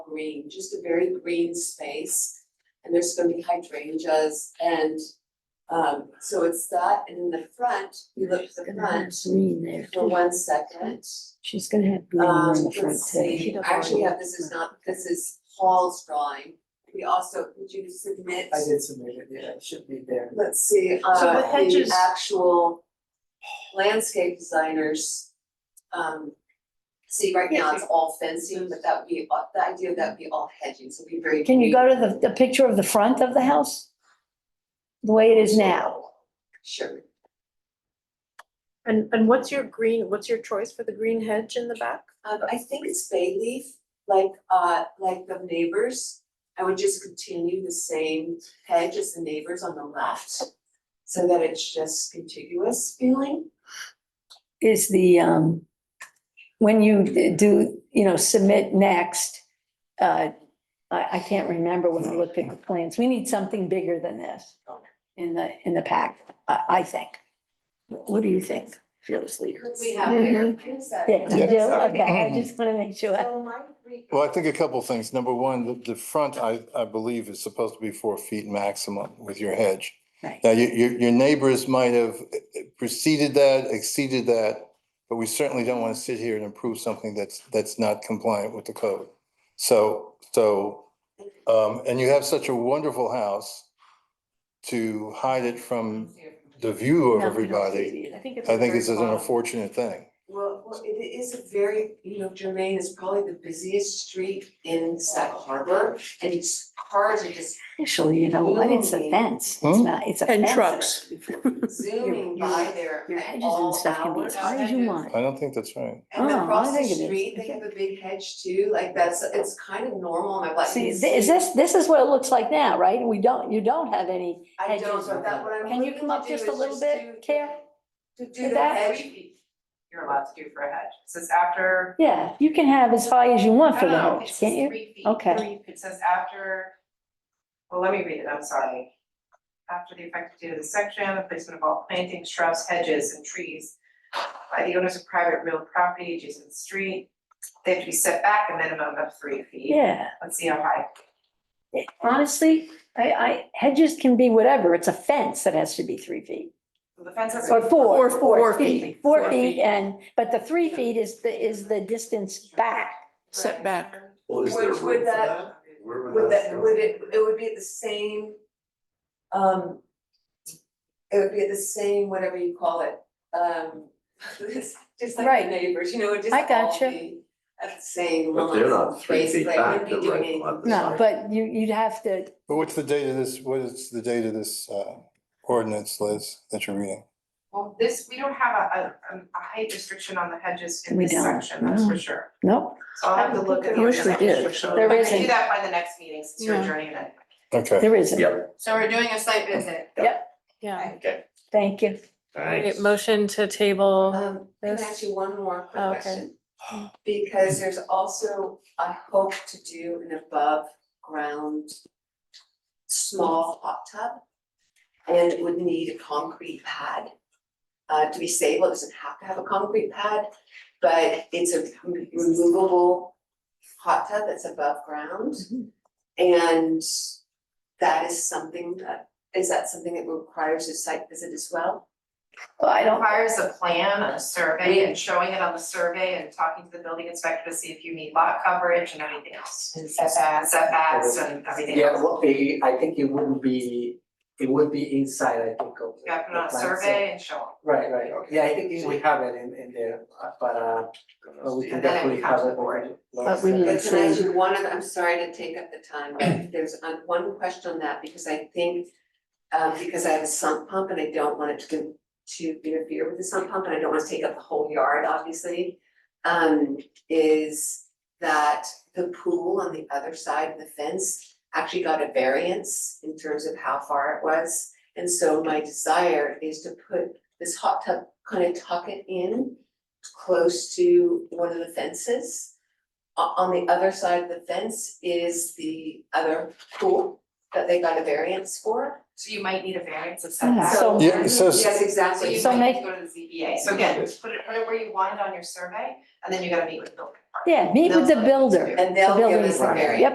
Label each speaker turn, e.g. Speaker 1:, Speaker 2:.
Speaker 1: green, just a very green space. And there's gonna be hydrangeas and, um, so it's that, and in the front, we look to the
Speaker 2: Gonna have
Speaker 1: front
Speaker 2: green there.
Speaker 1: for one second.
Speaker 2: She's gonna have green
Speaker 1: Um,
Speaker 2: in the front
Speaker 1: let's
Speaker 2: too.
Speaker 1: see, actually, yeah, this is not, this is Paul's drawing. We also, would you submit?
Speaker 3: I did submit it, yeah, it should be there.
Speaker 1: Let's see,
Speaker 4: So
Speaker 1: uh,
Speaker 4: the hedges-
Speaker 1: the actual landscape designers, um. See, right now it's all fencing, but that would be, uh, the idea of that would be all hedging, so it'd be very.
Speaker 2: Can you go to the, the picture of the front of the house? The way it is now?
Speaker 1: Sure,
Speaker 4: And, and what's your green, what's your choice for the green hedge in the back?
Speaker 1: um, I think it's bay leaf, like, uh, like the neighbors. I would just continue the same hedge as the neighbors on the left, so that it's just contiguous feeling.
Speaker 2: Is the, um, when you do, you know, submit next, uh, I, I can't remember when I looked at the plans. We need something bigger than this in the, in the pack, I, I think. What do you think, fearless leader?
Speaker 1: Could we have there? Is that-
Speaker 2: Mm-hmm. Yeah, you do?
Speaker 3: Yeah.
Speaker 2: okay, I just wanna make sure.
Speaker 1: So my three-
Speaker 5: Well, I think a couple things. Number one, the, the front, I, I believe is supposed to be four feet maximum with your hedge.
Speaker 2: Right.
Speaker 5: Now, your, your, your neighbors might have preceded that, exceeded that, but we certainly don't want to sit here and approve something that's, that's not compliant with the code. So, so, um, and you have such a wonderful house to hide it from the view of
Speaker 2: No, we don't see
Speaker 5: everybody,
Speaker 2: it either.
Speaker 4: think it's.
Speaker 5: I think is an unfortunate thing.
Speaker 1: Well, well, it is a very, you know, Germaine is probably the busiest street in Sag Harbor and it's cars are just
Speaker 2: Actually, you know what, it's a fence, it's
Speaker 5: Hmm?
Speaker 2: not, it's a fence.
Speaker 4: And trucks.
Speaker 1: zooming by there
Speaker 2: Your
Speaker 1: at
Speaker 2: hedges
Speaker 1: all
Speaker 2: and stuff can be
Speaker 1: hours.
Speaker 2: as high as you want.
Speaker 5: I don't think that's right.
Speaker 1: And
Speaker 2: Oh, I
Speaker 1: across the
Speaker 2: think it is.
Speaker 1: street, they have a big hedge too, like that's, it's kind of normal, my black.
Speaker 2: See, th- is this, this is what it looks like now, right? We don't, you don't have any,
Speaker 1: I don't,
Speaker 2: hedges
Speaker 1: but that what I'm
Speaker 2: Can you
Speaker 1: looking
Speaker 2: come
Speaker 1: to
Speaker 2: up
Speaker 1: do
Speaker 2: just a
Speaker 1: is
Speaker 2: little
Speaker 1: do-
Speaker 2: bit, Care?
Speaker 1: To do
Speaker 2: With
Speaker 1: the
Speaker 2: that?
Speaker 1: hedge.
Speaker 6: you're allowed to do for a hedge. It says after.
Speaker 2: yeah, you can have as high as you want for the
Speaker 6: No, no,
Speaker 2: hedge,
Speaker 6: it says
Speaker 2: can't you?
Speaker 6: Uh, three feet.
Speaker 2: Okay.
Speaker 6: It says after, well, let me read it, I'm sorry. After the effective date of the section, the placement of all plantings, shrubs, hedges, and trees by the owners of private real property adjacent to the street, they have to be set back a minimum of three feet.
Speaker 2: Yeah,
Speaker 6: Let's see how high.
Speaker 2: It- honestly, I, I, hedges can be whatever, it's a fence that has to be three feet.
Speaker 6: So the fence has.
Speaker 2: Or four,
Speaker 4: Or
Speaker 2: four
Speaker 4: four
Speaker 2: feet,
Speaker 4: feet.
Speaker 2: four
Speaker 4: Four
Speaker 2: feet,
Speaker 4: feet.
Speaker 2: and, but the three feet is the, is the distance back.
Speaker 4: Set back.
Speaker 7: Well, is there
Speaker 1: Which would
Speaker 7: room for
Speaker 1: that-
Speaker 7: Where would
Speaker 1: Would that,
Speaker 7: go?
Speaker 1: would it, it would be at the same, um, it would be at the same, whatever you call it, um, it's just like
Speaker 2: Right.
Speaker 1: the neighbors, you know, it just
Speaker 2: I
Speaker 1: all
Speaker 2: gotcha.
Speaker 1: be at the same
Speaker 7: But they're
Speaker 1: level,
Speaker 7: not three feet
Speaker 1: basically, I
Speaker 7: back,
Speaker 1: wouldn't be
Speaker 7: they're
Speaker 1: doing anything.
Speaker 7: right on the
Speaker 2: No,
Speaker 7: side.
Speaker 2: but you, you'd have to,
Speaker 5: But what's the date of this, what is the date of this uh, ordinance, Liz, that you're reading?
Speaker 6: Well, this, we don't have a, a, a height restriction on the hedges in
Speaker 2: We
Speaker 6: this
Speaker 2: don't,
Speaker 6: section, that's
Speaker 2: no.
Speaker 6: for sure.
Speaker 2: nope,
Speaker 6: So I'll have to look at.
Speaker 4: I wish we did.
Speaker 2: There
Speaker 6: But we
Speaker 2: isn't.
Speaker 6: do that by the next meeting, since you're
Speaker 4: Yeah.
Speaker 6: adjourning it. anyway.
Speaker 5: Okay,
Speaker 2: there isn't.
Speaker 7: Yep,
Speaker 6: So we're doing a site visit.
Speaker 4: Yeah.
Speaker 7: okay,
Speaker 2: Thank you.
Speaker 7: thanks.
Speaker 4: Motion to table.
Speaker 1: Um, can I
Speaker 4: This-
Speaker 1: ask you one more quick
Speaker 4: Oh, okay.
Speaker 1: question? Because there's also, I hope to do an above ground small hot tub. And it would need a concrete pad. Uh, to be stable, it doesn't have to have a concrete pad, but it's a removable hot tub that's above ground. And that is something that, is that something that requires a site visit as well?
Speaker 2: Well, I
Speaker 6: It
Speaker 2: don't,
Speaker 6: requires a plan and a survey and showing it on the survey and talking to the building inspector to see if you meet lot coverage and everything else.
Speaker 1: And
Speaker 6: Setbacks. Setbacks and everything
Speaker 3: Yeah, it
Speaker 6: else.
Speaker 3: would be, I think it wouldn't be, it would be inside, I think, of.
Speaker 6: You got to put
Speaker 3: the
Speaker 6: on
Speaker 3: plan,
Speaker 6: a
Speaker 3: so-
Speaker 6: survey and show them.
Speaker 3: Right, right,
Speaker 7: Okay.
Speaker 3: yeah, I think it- we have it in, in there, uh, but, uh, but we can
Speaker 6: And then it
Speaker 3: definitely
Speaker 6: becomes
Speaker 3: have it.
Speaker 6: a board.
Speaker 2: But we
Speaker 1: But
Speaker 2: need
Speaker 1: can I
Speaker 2: to-
Speaker 1: do one other, I'm sorry to take up the time, but there's uh, one question on that, because I think, um, because I have a sump pump and I don't want it to, to interfere with the sump pump, and I don't want to take up the whole yard, obviously, um, is that the pool on the other side of the fence actually got a variance in terms of how far it was. And so my desire is to put this hot tub, kind of tuck it in close to one of the fences. O- on the other side of the fence is the other pool that they got a variance for.
Speaker 6: So you might need a variance of
Speaker 2: Yeah.
Speaker 6: setback.
Speaker 2: So-
Speaker 5: Yeah, so-
Speaker 1: Yes,
Speaker 6: So
Speaker 1: exactly.
Speaker 6: you
Speaker 2: So
Speaker 6: might
Speaker 2: make-
Speaker 6: need to go to the ZBA, so again, just put it, put it where you want it on your survey, and then you gotta meet with the building department.
Speaker 2: Yeah, meet with the builder.
Speaker 1: And they'll
Speaker 2: The
Speaker 1: give
Speaker 2: building
Speaker 1: us a
Speaker 2: department.
Speaker 1: variance.
Speaker 2: Yep.